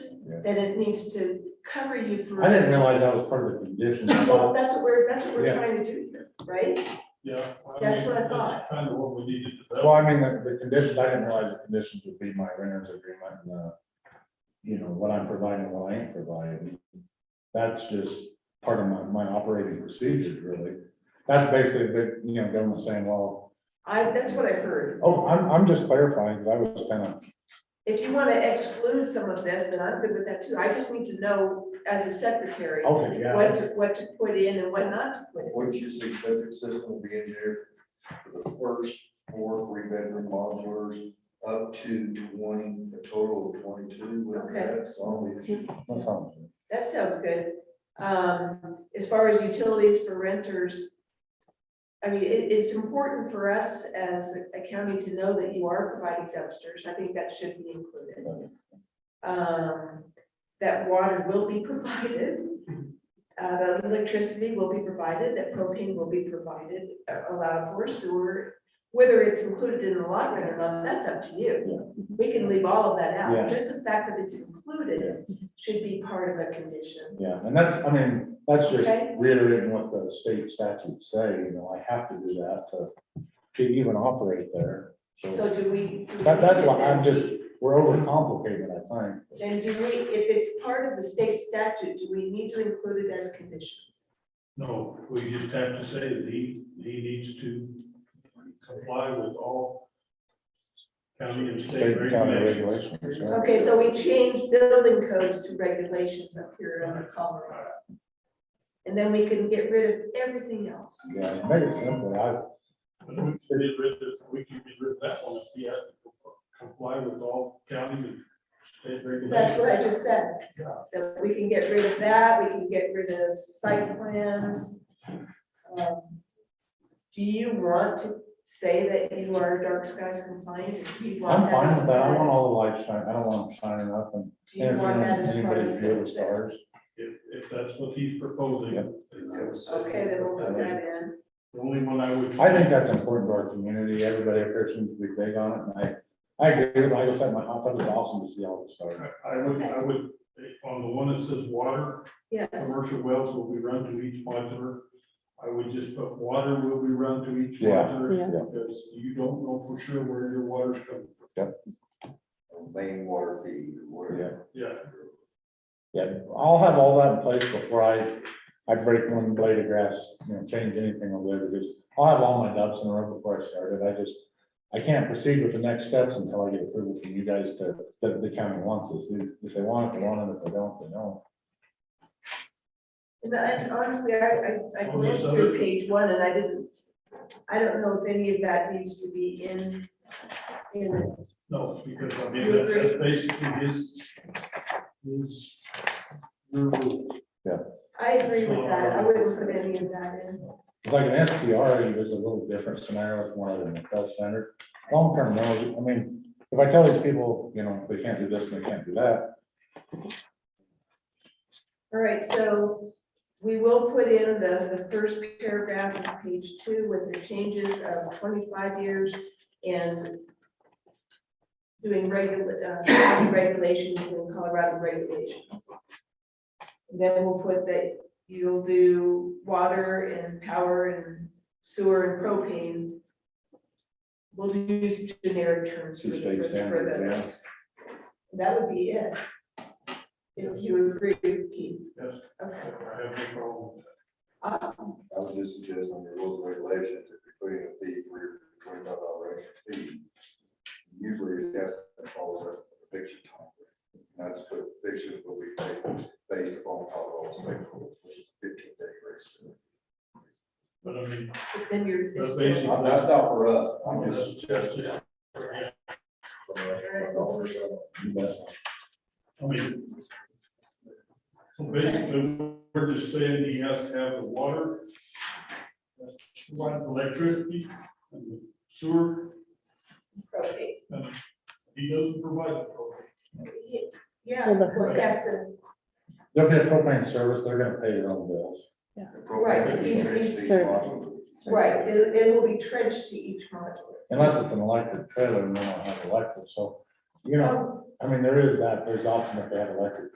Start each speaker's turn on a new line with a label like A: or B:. A: Yeah.
B: that it needs to cover you through.
A: I didn't realize that was part of the condition. I
B: Well,
A: thought-
B: that's what we're, that's what we're
A: Yeah.
B: trying to do here, right?
C: Yeah.
B: That's what I
C: mean,
B: thought.
C: Kind of what we needed to
A: Well, I mean, the, the conditions, I didn't realize the conditions would be my renter's agreement and, uh, you know, what I'm providing, what I ain't providing. That's just part of my, my operating procedures, really. That's basically, the you know, government saying, well,
B: I, that's what I heard.
A: oh, I'm, I'm just clarifying, 'cause I was kind of,
B: If you want to exclude some of this, then I'm good with that too. I just need to know as a secretary,
A: okay, Oh, yeah.
B: what to, what to put in and what not to put in.
D: Wouldn't you say septic system will be engineered for the first four three bedroom modulars up to twenty, a total of twenty-two? Wouldn't
B: Okay.
D: that solve the issue?
A: that sounds good.
B: That sounds good. Um, as far as utilities for renters, I mean, it, it's important for us as a county to know that you are providing dumpsters. I think that should be included. Um, that water will be provided, uh, that electricity will be provided, that propane will be provided, uh, allowed for sewer. Whether it's included in the lot rent or not, that's up to you. We can leave all of that
A: Yeah.
B: out. Just the fact that it's included
A: Yeah.
B: should be part of a condition.
A: Yeah, and that's, I mean, that's just
B: Okay.
A: reiterating what the state statutes say, you know, I have to do that to, to even operate there. So
B: So do we? do we
A: that, that's
B: need
A: why
B: to
A: I'm
B: then-
A: just, we're overcomplicated, I think.
B: Then do we, if it's part of the state statute, do we need to include it as conditions?
C: No, we just have to say that he, he needs to comply with all county and
A: State
C: state
A: and county
C: regulations.
A: regulations. yeah.
B: Okay, so we changed building codes to regulations up here under Colorado. And then we can get rid of everything else.
A: Yeah, make it simple, I,
C: But we can get rid of, we can get rid of that one if he has to comply with all county and state regulations.
B: That's what I just said, that we can get rid of that, we can get rid of site plans. Um, Do you want to say that you are dark skies compliant? Do you want
A: I'm fine
B: as
A: with that, I
B: part of-
A: want all the lights shining, I don't want them shining up and.
B: Do you want that as part
A: Anybody's
B: of
A: view of the
B: this?
A: stars.
C: If, if that's what he's proposing.
A: Yeah.
C: then I would say-
B: Okay, then we'll put that in.
C: The only one I would.
A: I think that's important to our community, everybody appears to be big on it, and I, I agree, with- like I said, my hot tub is awesome to see all the stars.
C: I- I would, I would, on the one that says water,
B: Yes,
C: Commercial wells will be run to each modular. I would just put water will be run to each
A: Yeah.
C: modular,
E: Yeah.
A: Yeah.
C: because you don't know for sure where your water's coming from.
D: Main water feed, whatever.
C: Yeah,
A: Yeah, I'll have all that in place before I, I break one blade of grass, you know, change anything over there, because I'll have all my ducks in a row before I started, I just, I can't proceed with the next steps until I get approval from you guys to, that the county wants this, If- if they want it, they want it, if they don't, they don't.
B: and I- and honestly, I, I, I
C: Well,
B: glanced
C: there's
B: through
C: other-
B: page one and I didn't, I don't know if any of that needs to be in, in it.
C: no, because I mean, that's that's basically his, his. your rules.
B: I agree with that, I wouldn't put any of that in.
A: It's Like an SPR, there's a little different scenario with one of them, the health center, long-term rentals, I mean, if I tell these people, you know, they can't do this, and they can't do that,
B: All right, so we will put in the, the first paragraph of page two with the changes of twenty-five years and doing regular, uh, county regulations and Colorado regulations. Then we'll put that you'll do water and power and sewer and propane. We'll use generic terms for
A: Two state
B: the- for
A: standards, yeah.
B: those. That would be it. If you agree, Keith.
C: Yes, I
B: Okay,
C: have no problem. with
B: awesome.
D: I would just suggest on your rules and regulations, if you're putting a fee for your twenty-five dollar extra fee, usually it has to follow a fiction time. That's what fiction will be based- based upon Colorado state rules, which is fifteen day grace.
C: that. But I mean,
B: But Then you're.
C: That's basically-
D: Uh, That's not for us, I'm
C: that's
D: just
C: just,
D: suggesting.
C: yeah.
D: Well,
A: but
C: I mean. So basically, we're just saying he has to have the water. Electricity and the sewer,
B: Okay.
C: and he doesn't provide the propane.
B: Yeah,
E: Well, the-
B: well, that's the,
A: they'll get propane service, they're gonna pay their own bills.
B: Right, he's-
E: he's
B: right, it, it will be trenched to each module.
A: Unless it's an electric trailer and they don't have electric, so, you know,
B: Um,
A: I mean, there is that, there's option if they have electric